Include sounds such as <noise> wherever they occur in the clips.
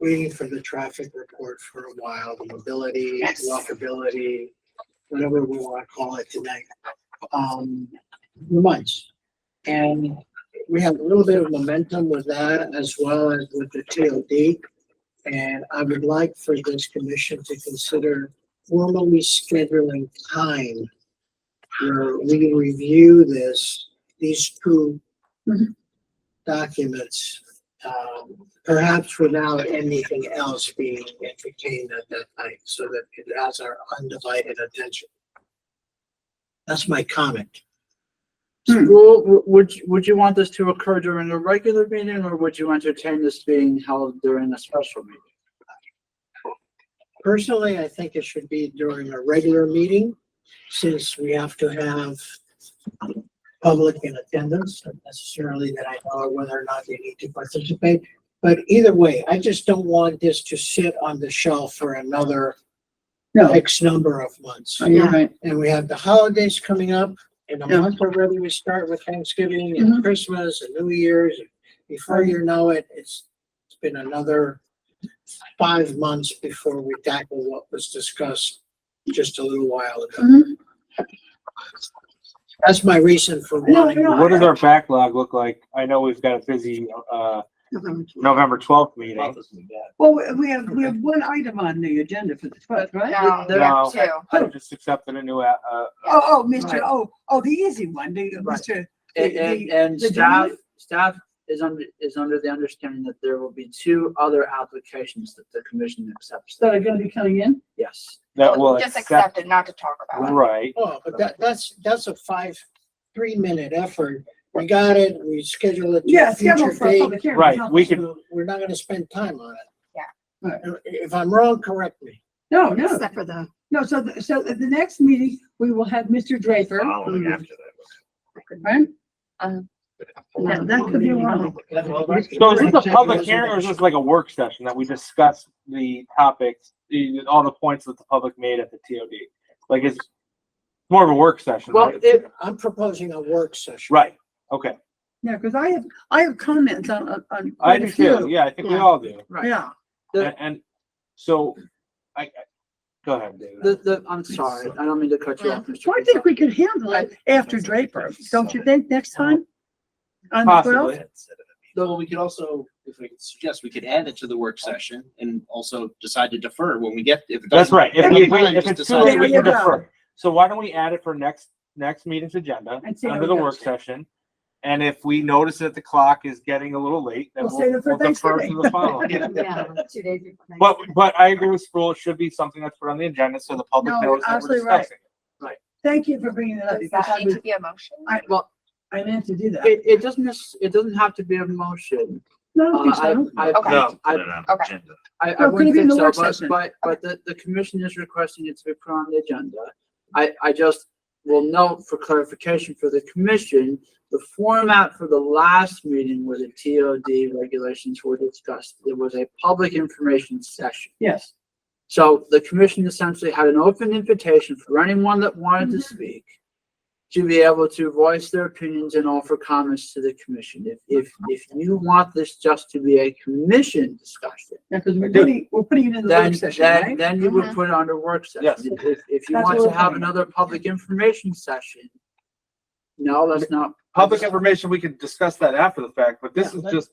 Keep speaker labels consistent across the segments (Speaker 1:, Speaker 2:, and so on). Speaker 1: waiting for the traffic report for a while, the mobility,
Speaker 2: Yes.
Speaker 1: walkability, whatever we want to call it tonight. Um, months. And we have a little bit of momentum with that as well as with the TLD. And I would like for this commission to consider formally scheduling time where we can review this, these two
Speaker 2: Mhm.
Speaker 1: documents, um, perhaps without anything else being entertained at that night, so that it has our undivided attention. That's my comment.
Speaker 2: School, w- would, you- would you want this to occur during a regular meeting or would you entertain this being held during a special meeting?
Speaker 1: Personally, I think it should be during a regular meeting, since we have to have public in attendance, not necessarily that I know whether or not they need to participate. But either way, I just don't want this to sit on the shelf for another X number of months.
Speaker 2: You're right.
Speaker 1: And we have the holidays coming up in a
Speaker 2: Yeah.
Speaker 1: month already. We start with Thanksgiving
Speaker 2: Mhm.
Speaker 3: Mm-hmm.
Speaker 1: and Christmas and New Year's. and Before you know it, it's, it's been another five months before we tackle what was discussed just a little while ago.
Speaker 2: Mhm.
Speaker 3: Mm-hmm.
Speaker 1: That's my reason for
Speaker 2: No,
Speaker 1: wanting.
Speaker 2: no,
Speaker 4: What does our backlog look like? I know we've got a busy, uh, November twelfth meeting.
Speaker 3: Well, we- we have, we have one item on the agenda for the twelfth, right?
Speaker 5: No,
Speaker 2: There-
Speaker 5: there
Speaker 4: No,
Speaker 5: are two.
Speaker 4: I'm just accepting a new, uh, uh,
Speaker 3: Oh, oh, Mr.,
Speaker 2: Right.
Speaker 3: oh, oh, the easy one, the,
Speaker 1: Right.
Speaker 3: Mr.,
Speaker 2: And,
Speaker 3: The-
Speaker 2: and,
Speaker 3: the-
Speaker 2: and
Speaker 3: the
Speaker 2: staff,
Speaker 3: gentleman-
Speaker 2: staff is under, is under the understanding that there will be two other applications that the commission accepts.
Speaker 3: that are gonna be coming in?
Speaker 2: Yes.
Speaker 4: that will
Speaker 5: Just
Speaker 4: accept.
Speaker 5: accept it, not to talk about it.
Speaker 4: Right.
Speaker 1: Oh, but that, that's, that's a five, three minute effort. We got it. We schedule it. to a
Speaker 3: Yeah, schedule
Speaker 1: future
Speaker 3: for a
Speaker 1: date.
Speaker 3: public hearing.
Speaker 4: Right,
Speaker 3: not-
Speaker 4: we could-
Speaker 1: So We're not gonna spend time on it.
Speaker 5: Yeah.
Speaker 3: Right.
Speaker 1: If I'm wrong, correct me.
Speaker 3: No, no,
Speaker 6: for the.
Speaker 3: no, so, the- so at the next meeting, we will have Mr. Draper. Right? Yeah, that could be wrong.
Speaker 4: So is this a public hearing or is this like a work session that we discuss the topics, the, all the points that the public made at the TOD? Like it's more of a work session,
Speaker 2: Well,
Speaker 4: right?
Speaker 2: if,
Speaker 1: I'm proposing a work session.
Speaker 4: Right, okay.
Speaker 3: Yeah, because I have, I have comments on, on- on.
Speaker 4: I
Speaker 3: quite a few.
Speaker 4: understand. Yeah, I think we all do.
Speaker 2: Right.
Speaker 3: Yeah,
Speaker 4: And, and so I, I, go ahead, David.
Speaker 2: the, the, I'm sorry, I don't mean to cut you off, Mr.
Speaker 3: so I think we could handle it after Draper, don't you think, next time? On the
Speaker 4: Possibly.
Speaker 3: twelfth?
Speaker 7: Though we could also, if I could suggest, we could add it to the work session and also decide to defer when we get, if it
Speaker 4: That's
Speaker 7: doesn't.
Speaker 4: right. If
Speaker 7: At
Speaker 4: we,
Speaker 7: the time,
Speaker 4: if
Speaker 7: just
Speaker 4: it's too
Speaker 7: decide.
Speaker 4: late, we can
Speaker 3: Yeah.
Speaker 4: defer. So why don't we add it for next, next meeting's agenda,
Speaker 3: And see how
Speaker 4: under
Speaker 3: it
Speaker 4: the work
Speaker 3: goes.
Speaker 4: session? And if we notice that the clock is getting a little late, then
Speaker 3: We'll save
Speaker 4: we'll
Speaker 3: it for
Speaker 4: we'll defer
Speaker 3: Thanksgiving.
Speaker 4: to the
Speaker 3: <laughs>
Speaker 4: following.
Speaker 6: Yeah, two days. before Thanksgiving.
Speaker 4: But, but I agree with Sproul, it should be something that's put on the agenda so the public
Speaker 3: No,
Speaker 4: knows that we're
Speaker 3: absolutely right.
Speaker 4: discussing.
Speaker 3: Thank you for bringing it up,
Speaker 5: Does
Speaker 3: because
Speaker 5: that
Speaker 3: I
Speaker 5: need
Speaker 3: was,
Speaker 5: to be a motion?
Speaker 3: I, well, I meant to do that.
Speaker 2: It, it doesn't, nec- it doesn't have to be a motion.
Speaker 3: No, I
Speaker 2: Uh,
Speaker 3: don't think so.
Speaker 2: I,
Speaker 5: Okay.
Speaker 8: No,
Speaker 2: I, I,
Speaker 8: put it on
Speaker 5: okay.
Speaker 8: agenda.
Speaker 2: I, I
Speaker 3: No, could it
Speaker 2: wouldn't
Speaker 3: be in
Speaker 2: think
Speaker 3: the
Speaker 2: so,
Speaker 3: work
Speaker 2: but,
Speaker 3: session?
Speaker 2: but, but the, the commission is requesting it to be put on the agenda. I, I just will note for clarification for the commission, the format for the last meeting where the TOD regulations were discussed, it was a public information session.
Speaker 3: Yes.
Speaker 2: So the commission essentially had an open invitation for anyone that wanted
Speaker 3: Mm-hmm.
Speaker 2: to speak to be able to voice their opinions and offer comments to the commission. If, if, if you want this just to be a commission discussion,
Speaker 3: Yeah, because we're
Speaker 4: do.
Speaker 3: putting, we're putting it in the
Speaker 2: then,
Speaker 3: work session,
Speaker 2: then,
Speaker 3: right? Mm-hmm.
Speaker 2: then you would
Speaker 5: Mhm.
Speaker 2: put it under work
Speaker 4: Yes.
Speaker 2: session. If, if
Speaker 3: That's
Speaker 2: you want
Speaker 3: what
Speaker 2: to
Speaker 3: we're
Speaker 2: have
Speaker 3: doing.
Speaker 2: another public information session, no, that's not.
Speaker 4: Public information, we can discuss that after the fact, but this
Speaker 2: Yeah.
Speaker 4: is just,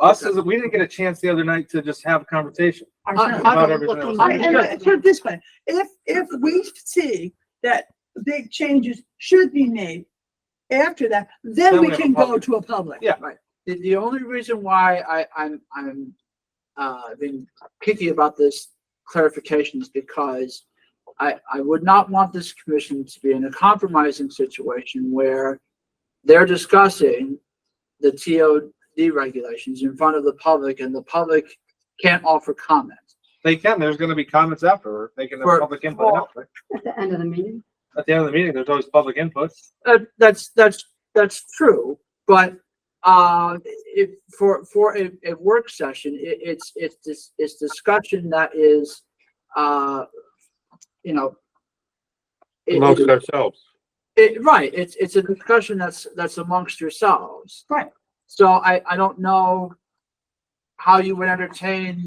Speaker 4: us, as we didn't get a chance the other night to just have a conversation.
Speaker 2: I-
Speaker 4: About
Speaker 2: I-
Speaker 4: everything else.
Speaker 3: I, and I- put it this way, if, if we see that big changes should be made after that, then
Speaker 4: Then
Speaker 3: we
Speaker 4: we have a
Speaker 3: can go
Speaker 4: public.
Speaker 3: to a public.
Speaker 4: Yeah.
Speaker 2: The, the only reason why I, I'm, I'm, uh, being picky about this clarification is because I, I would not want this commission to be in a compromising situation where they're discussing the TOD regulations in front of the public and the public can't offer comment.
Speaker 4: They can, there's gonna be comments after, they can
Speaker 2: For-
Speaker 4: have public input. after.
Speaker 6: At the end of the meeting.
Speaker 4: At the end of the meeting, there's always public input.
Speaker 2: Uh, that's, that's, that's true, but, uh, if, for, for a, a work session, it, it's, it's, dis- it's discussion that is, uh, you know. it-
Speaker 9: amongst
Speaker 2: it-
Speaker 9: ourselves.
Speaker 2: It, right, it's, it's a discussion that's, that's amongst yourselves.
Speaker 3: Right.
Speaker 2: So I, I don't know how you would entertain